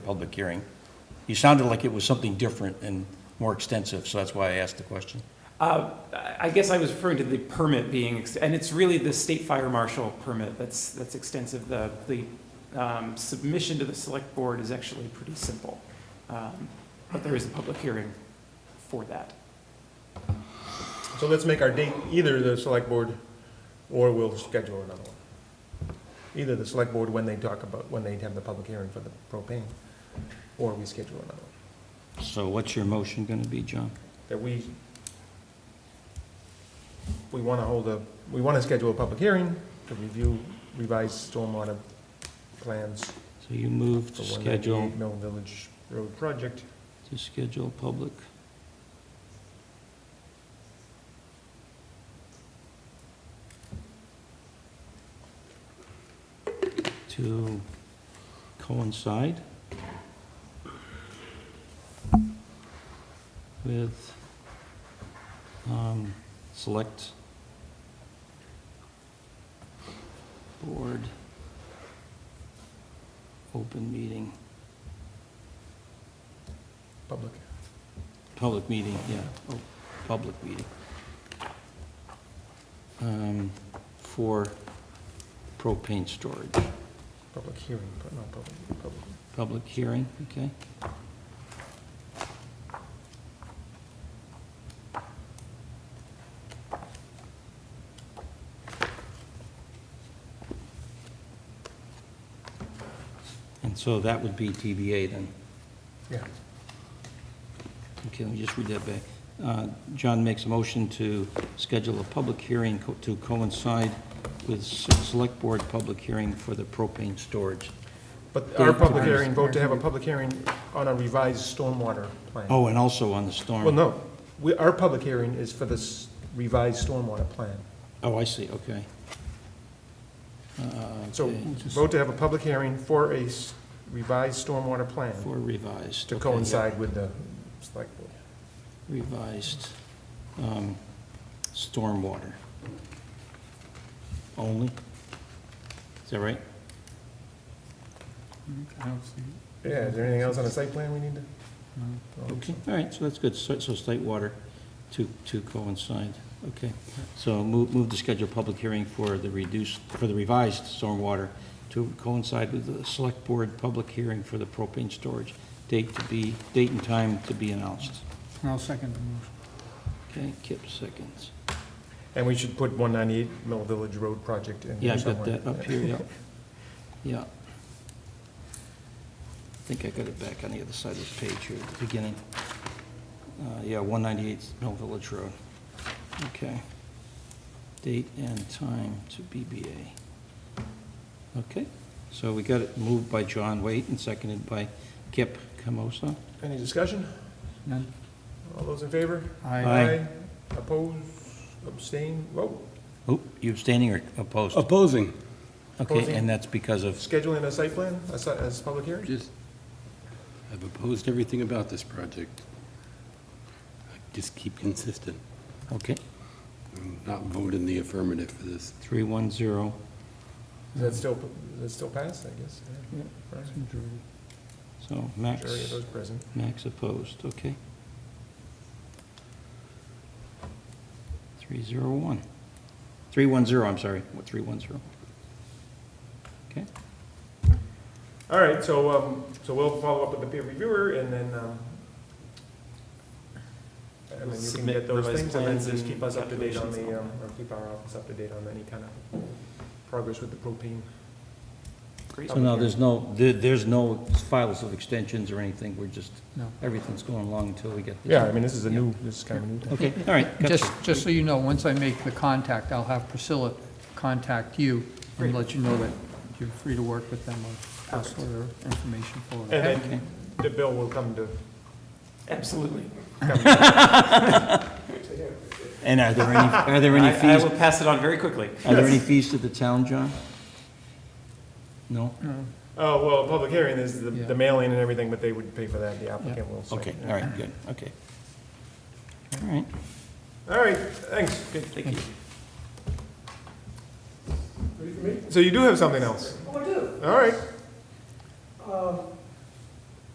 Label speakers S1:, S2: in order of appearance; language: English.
S1: public hearing. You sounded like it was something different and more extensive, so that's why I asked the question.
S2: Uh, I I guess I was referring to the permit being, ex- and it's really the state fire marshal permit that's, that's extensive. The, the um, submission to the select board is actually pretty simple. Um, But there is a public hearing for that.
S3: So let's make our date either the select board, or we'll schedule another one. Either the select board when they talk about, when they have the public hearing for the propane, or we schedule another one.
S1: So what's your motion going to be, John?
S3: That we, we want to hold a, we want to schedule a public hearing to review revised stormwater plans
S1: So you move
S3: for
S1: to
S3: one
S1: schedule,
S3: ninety-eight Mill Village Road project.
S1: to schedule public to coincide with um, select board open meeting,
S3: Public.
S1: public meeting, yeah, oh, public meeting. Um, For propane storage.
S3: Public hearing, but not public, public.
S1: Public hearing, okay. And so that would be TBA then.
S3: Yeah,
S1: Okay, let me just read that back. Uh, John makes a motion to schedule a public hearing co- to coincide with s- Select Board public hearing for the propane storage.
S3: but our public
S1: Date.
S3: hearing, vote to have a public hearing on a revised stormwater plan.
S1: Oh, and also on the storm.
S3: Well, no, we, our public hearing is for this revised stormwater plan.
S1: Oh, I see, okay. Uh,
S3: So
S1: okay,
S3: vote to have a public hearing for a s- revised stormwater plan
S1: For revised.
S3: to
S1: okay,
S3: coincide with the select board.
S1: yeah. Revised um, stormwater. Only? Is that right?
S4: I don't see it.
S3: Yeah, is there anything else on the site plan we need to?
S4: No.
S1: Okay, all right, so that's good, so, so state water to, to coincide, okay. So move, move to schedule public hearing for the reduced, for the revised stormwater to coincide with the select board public hearing for the propane storage, date to be, date and time to be announced.
S4: And I'll second the
S1: Okay,
S4: motion.
S1: Kip seconds.
S3: And we should put one ninety-eight Mill Village Road project in
S1: Yeah,
S3: there
S1: I've got
S3: somewhere.
S1: that up here, yeah. Yeah. I think I got it back on the other side of the page here at the beginning. Uh, Yeah, 198 Mill Village Road. Okay. Date and time to BBA. Okay, so we got it moved by John Waite and seconded by Kip Camosa.
S3: Any discussion?
S4: None?
S3: All those in favor?
S1: Aye.
S3: Oppose, abstain, vote.
S1: Oh, you abstaining or opposed?
S4: Opposing.
S1: Okay, and that's because of,
S3: Scheduling a site plan, as, as public hearing?
S5: Just, I've opposed everything about this project. I Just keep consistent.
S1: okay,
S5: I'm Not vote in the affirmative for this.
S1: 310.
S3: Is that still, is that still passed, I guess? Yeah. Right.
S1: So Max.
S3: Majority of those present.
S1: Max opposed, okay. Three zero one. Three one zero, I'm sorry, what, three one zero? Okay,
S3: All right, so, um, so we'll follow up with the peer reviewer and then, um, and then you can
S2: Submit
S3: get those
S2: revised
S3: things and then
S2: plans
S3: just
S2: and
S3: keep us up to date on
S2: calculations.
S3: the, um, or keep our office up to date on any kind of progress with the propane.
S2: Great.
S1: so now there's no, there, there's no files of extensions or anything, we're just,
S4: No.
S1: everything's going along until we get this.
S3: Yeah, I mean, this is a new, this is kind of new.
S1: Okay, all right,
S4: Just,
S1: gotcha,
S4: just so you know, once I make the contact, I'll have Priscilla contact you and let you know that you're free to work with them or pass their information forward.
S3: And then the bill will come to,
S2: Absolutely.
S1: and are there any, are there any
S2: I I will
S1: fees,
S2: pass it on very quickly.
S1: are there any fees to the town, John? No?
S3: oh, well, public hearing is the,
S4: Yeah.
S3: the mailing and everything, but they would pay for that, the applicant will. say.
S1: Okay, all right, good, okay. All right,
S3: All right, thanks.
S2: Good, thank you.
S6: Ready for me?
S3: So you do have something else?
S6: Oh, I do.
S3: All right,
S6: Um,